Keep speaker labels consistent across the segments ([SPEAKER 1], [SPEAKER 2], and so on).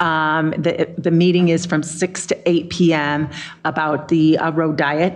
[SPEAKER 1] Um, The the meeting is from 6 to 8 PM about the uh, road diet.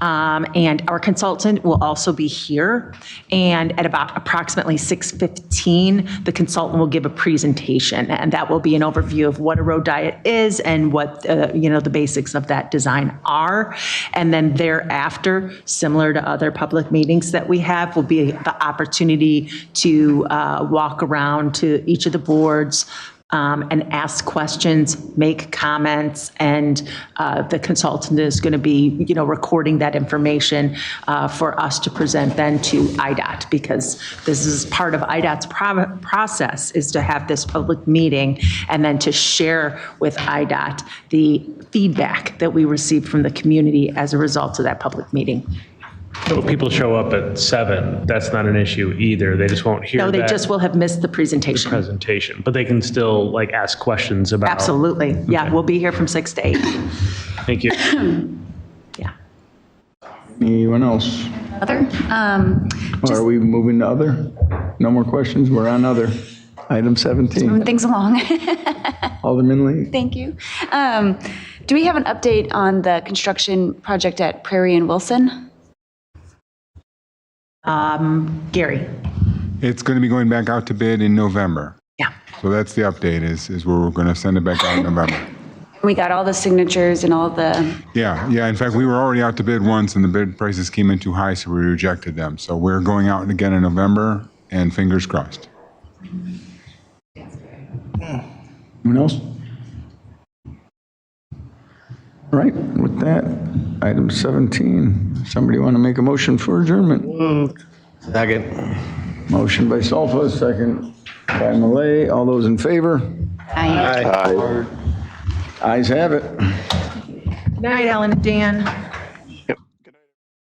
[SPEAKER 1] Um, And our consultant will also be here. And at about approximately 6:15, the consultant will give a presentation. And that will be an overview of what a road diet is and what, uh, you know, the basics of that design are. And then thereafter, similar to other public meetings that we have, will be the opportunity to uh, walk around to each of the boards um, and ask questions, make comments, and uh, the consultant is going to be, you know, recording that information uh, for us to present then to IDOT, because this is part of IDOT's pro- process, is to have this public meeting and then to share with IDOT the feedback that we received from the community as a result of that public meeting.
[SPEAKER 2] So if people show up at seven, that's not an issue either. They just won't hear
[SPEAKER 1] No, they just
[SPEAKER 2] that
[SPEAKER 1] will have missed the presentation.
[SPEAKER 2] presentation, but they can still like ask questions about.
[SPEAKER 1] Absolutely. Yeah,
[SPEAKER 2] Oh, Okay.
[SPEAKER 1] we'll be here from 6 to 8.
[SPEAKER 2] Thank you.
[SPEAKER 1] Yeah.
[SPEAKER 3] Anyone else?
[SPEAKER 4] Other, um,
[SPEAKER 3] Are we moving to other? No more questions, we're on other. Item 17,
[SPEAKER 4] things along.
[SPEAKER 3] Alderman Lee.
[SPEAKER 4] Thank you. Um, do we have an update on the construction project at Prairie and Wilson?
[SPEAKER 1] Gary?
[SPEAKER 5] It's going to be going back out to bid in November.
[SPEAKER 1] Yeah.
[SPEAKER 5] So that's the update is, is where we're going to send it back out in November.
[SPEAKER 4] We got all the signatures and all the,
[SPEAKER 5] Yeah, yeah. In fact, we were already out to bid once and the bid prices came in too high, so we rejected them. So we're going out again in November and fingers crossed.
[SPEAKER 3] Anyone else? All right, with that, item 17, somebody want to make a motion for adjournment?
[SPEAKER 6] Second.
[SPEAKER 3] Motion by Solfa, second by Malay. All those in favor?
[SPEAKER 4] I.
[SPEAKER 3] Ayes have it.
[SPEAKER 1] Good night, Ellen and Dan.